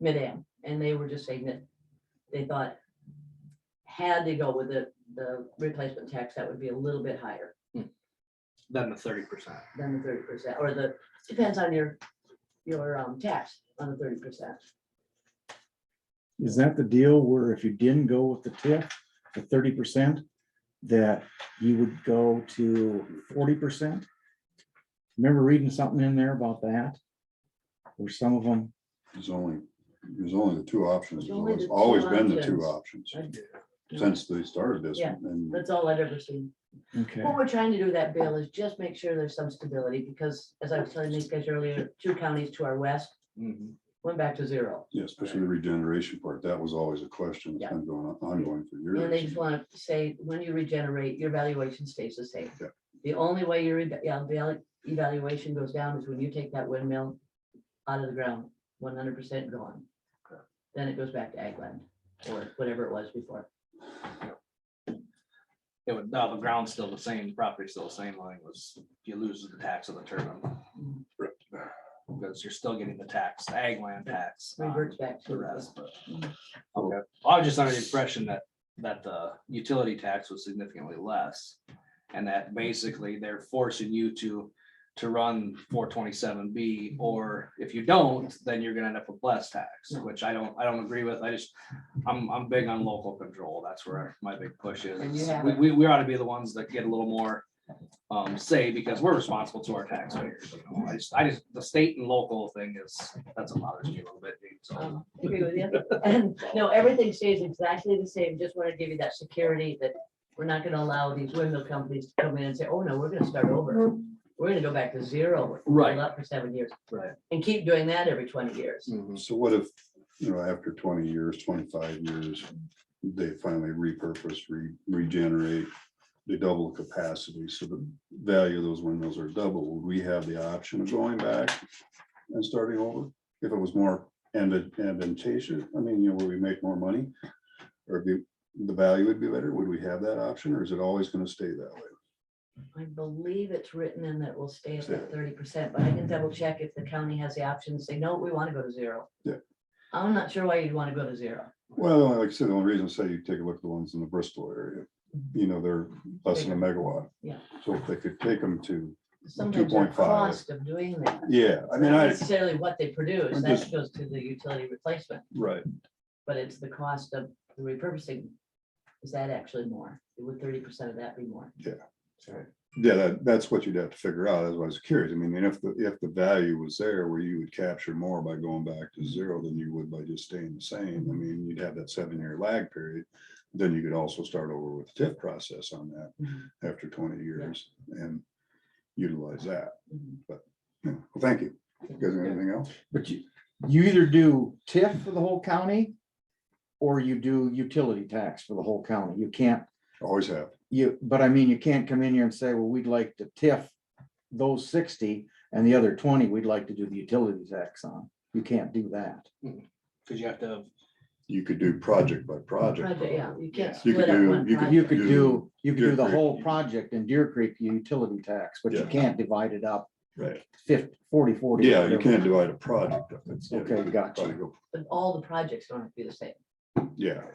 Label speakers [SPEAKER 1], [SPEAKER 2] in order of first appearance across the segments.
[SPEAKER 1] mid-am, and they were just saying that they thought had they go with the, the replacement tax, that would be a little bit higher
[SPEAKER 2] than the thirty percent.
[SPEAKER 1] than the thirty percent, or the, depends on your, your, um, tax on the thirty percent.
[SPEAKER 3] Is that the deal where if you didn't go with the tip, the thirty percent, that you would go to forty percent? Remember reading something in there about that? Or some of them,
[SPEAKER 4] There's only, there's only the two options.
[SPEAKER 1] There's
[SPEAKER 4] It's
[SPEAKER 1] only
[SPEAKER 4] always-
[SPEAKER 1] the two
[SPEAKER 4] always been the two options
[SPEAKER 1] options.
[SPEAKER 4] since they started this.
[SPEAKER 1] Yeah.
[SPEAKER 4] And
[SPEAKER 1] That's all I've ever seen.
[SPEAKER 3] okay,
[SPEAKER 1] What we're trying to do with that bill is just make sure there's some stability, because as I was telling these guys earlier, two counties to our west
[SPEAKER 2] Mm-hmm.
[SPEAKER 1] went back to zero.
[SPEAKER 4] yeah, especially the regeneration part, that was always a question that's been going, on- ongoing for
[SPEAKER 1] And they
[SPEAKER 4] years.
[SPEAKER 1] just want to say, when you regenerate, your valuation stays the same.
[SPEAKER 4] Yeah.
[SPEAKER 1] The only way your eva- yeah, val- evaluation goes down is when you take that windmill out of the ground, one hundred percent gone. Then it goes back to ag land or whatever it was before.
[SPEAKER 2] It would, no, the ground's still the same, property's still the same line was, you lose the tax of the turbine. Because you're still getting the tax, the ag land tax. on
[SPEAKER 1] Reverts back to
[SPEAKER 2] The
[SPEAKER 1] the mm.
[SPEAKER 2] rest, but. Okay, I was just under the impression that, that the utility tax was significantly less. And that basically they're forcing you to, to run four twenty-seven B, or if you don't, then you're gonna end up with less tax, which I don't, I don't agree with, I just. I'm, I'm big on local control, that's where my big push
[SPEAKER 1] And you
[SPEAKER 2] is,
[SPEAKER 1] have
[SPEAKER 2] we,
[SPEAKER 1] it.
[SPEAKER 2] we, we ought to be the ones that get a little more. Um, say, because we're responsible to our taxpayers, you know, I just, I just, the state and local thing is, that's what bothers me a little bit, dude, so.
[SPEAKER 1] Um, I agree with you. And no, everything stays exactly the same. Just want to give you that security that we're not going to allow these windmill companies to come in and say, oh, no, we're going to start over. We're going to go back to zero. we're
[SPEAKER 2] Right.
[SPEAKER 1] Up for seven years
[SPEAKER 2] Right.
[SPEAKER 1] and keep doing that every twenty years.
[SPEAKER 4] Um, So what if, you know, after twenty years, twenty-five years, they finally repurpose, re- regenerate, they double the capacity, so the value of those windmills are double, would we have the option of going back and starting over? If it was more advan- advantageous, I mean, you know, where we make more money, or the, the value would be better, would we have that option, or is it always gonna stay that way?
[SPEAKER 1] I believe it's written in that we'll stay at that thirty percent, but I can double check if the county has the option to say, no, we want to go to zero.
[SPEAKER 4] Yeah.
[SPEAKER 1] I'm not sure why you'd want to go to zero.
[SPEAKER 4] Well, like I said, the only reason I say you take a look at the ones in the Bristol area, you know, they're less than a megawatt.
[SPEAKER 1] Yeah.
[SPEAKER 4] So if they could take them to,
[SPEAKER 1] Sometimes the
[SPEAKER 4] 2.5.
[SPEAKER 1] cost of doing that.
[SPEAKER 4] yeah, I
[SPEAKER 1] It's
[SPEAKER 4] mean,
[SPEAKER 1] not
[SPEAKER 4] I,
[SPEAKER 1] Necessarily what they produce,
[SPEAKER 4] I'm
[SPEAKER 1] that
[SPEAKER 4] just-
[SPEAKER 1] goes to the utility replacement,
[SPEAKER 4] right,
[SPEAKER 1] but it's the cost of the repurposing. Is that actually more? Would thirty percent of that be more?
[SPEAKER 4] yeah, that, that's what you'd have to figure out, that's why I was curious, I mean, and if the, if the value was there where you would capture more by going back to zero than you would by just staying the same, I mean, you'd have that seven-year lag period. Then you could also start over with the TIF process on that
[SPEAKER 1] Mhm,
[SPEAKER 4] after twenty years and utilize that,
[SPEAKER 1] mhm.
[SPEAKER 4] Yeah. well, thank you, you guys have anything else?
[SPEAKER 3] but you, you either do TIF for the whole county. Or you do utility tax for the whole county, you can't,
[SPEAKER 4] Always have,
[SPEAKER 3] you, but I mean, you can't come in here and say, well, we'd like to TIF. Those sixty and the other twenty, we'd like to do the utility tax on, you can't do that.
[SPEAKER 2] Cause you have to,
[SPEAKER 4] you could do project by project.
[SPEAKER 1] Project, yeah, you can't
[SPEAKER 4] You could
[SPEAKER 1] split up
[SPEAKER 4] do-
[SPEAKER 1] one
[SPEAKER 4] you could-
[SPEAKER 3] You
[SPEAKER 1] project.
[SPEAKER 3] could do, you could do the
[SPEAKER 4] Deer Creek.
[SPEAKER 3] whole project in Deer Creek utility tax, but you
[SPEAKER 4] Yeah.
[SPEAKER 3] can't divide it up
[SPEAKER 4] Right.
[SPEAKER 3] fifty, forty, forty.
[SPEAKER 4] Yeah, you can't divide a project up. It's- yeah,
[SPEAKER 3] Okay,
[SPEAKER 4] you could
[SPEAKER 3] gotcha.
[SPEAKER 4] probably go-
[SPEAKER 1] But all the projects don't have to be the same.
[SPEAKER 4] Yeah.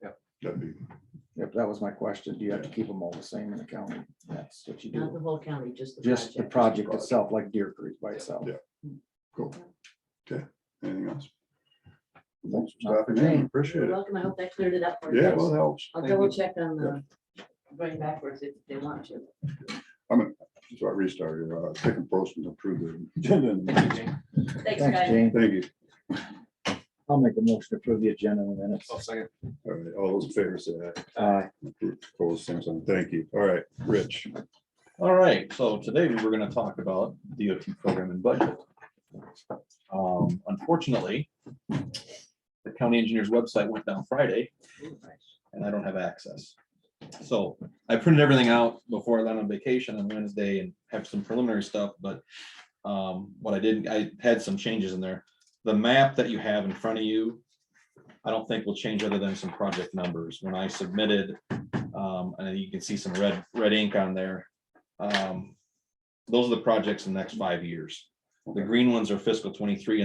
[SPEAKER 2] Yep.
[SPEAKER 4] That'd be,
[SPEAKER 3] Yep, that was my question. Do you have to keep them all the same in the county? That's what you
[SPEAKER 1] Not
[SPEAKER 3] do.
[SPEAKER 1] the whole county, just the
[SPEAKER 3] Just the
[SPEAKER 1] project.
[SPEAKER 3] project itself, like Deer Creek by itself.
[SPEAKER 4] Yeah. cool. Okay, anything else?
[SPEAKER 3] Nope,
[SPEAKER 4] Thanks for
[SPEAKER 3] not for
[SPEAKER 4] stopping in,
[SPEAKER 3] me.
[SPEAKER 4] appreciate
[SPEAKER 1] You're
[SPEAKER 4] it.
[SPEAKER 1] welcome. I hope that cleared it up for you.
[SPEAKER 4] Yeah,
[SPEAKER 1] guys.
[SPEAKER 4] well, it helps.
[SPEAKER 1] I'll
[SPEAKER 2] thank you.
[SPEAKER 1] double check on the going backwards if they want to.
[SPEAKER 4] So I restarted, uh, second post and approved the agenda.
[SPEAKER 1] Thanks,
[SPEAKER 3] Thanks,
[SPEAKER 1] guys.
[SPEAKER 3] Jane.
[SPEAKER 4] Thank you.
[SPEAKER 3] I'll make a motion to approve the agenda in a minute.
[SPEAKER 2] oh, second,
[SPEAKER 4] All right, all those in favor say aye.
[SPEAKER 3] Uh,
[SPEAKER 4] Approved, Opposed, same sign. Thank you. All right, Rich.
[SPEAKER 5] All right, so today we were gonna talk about DOT program and budget. Um, Unfortunately, the county engineer's website went down Friday and I don't have access. So I printed everything out before I went on vacation on Wednesday and have some preliminary stuff, but um, what I did, I had some changes in there. The map that you have in front of you, I don't think will change other than some project numbers. When I submitted, um, and you can see some red, red ink on there. Um, Those are the projects in the next five years. The green ones are fiscal twenty-three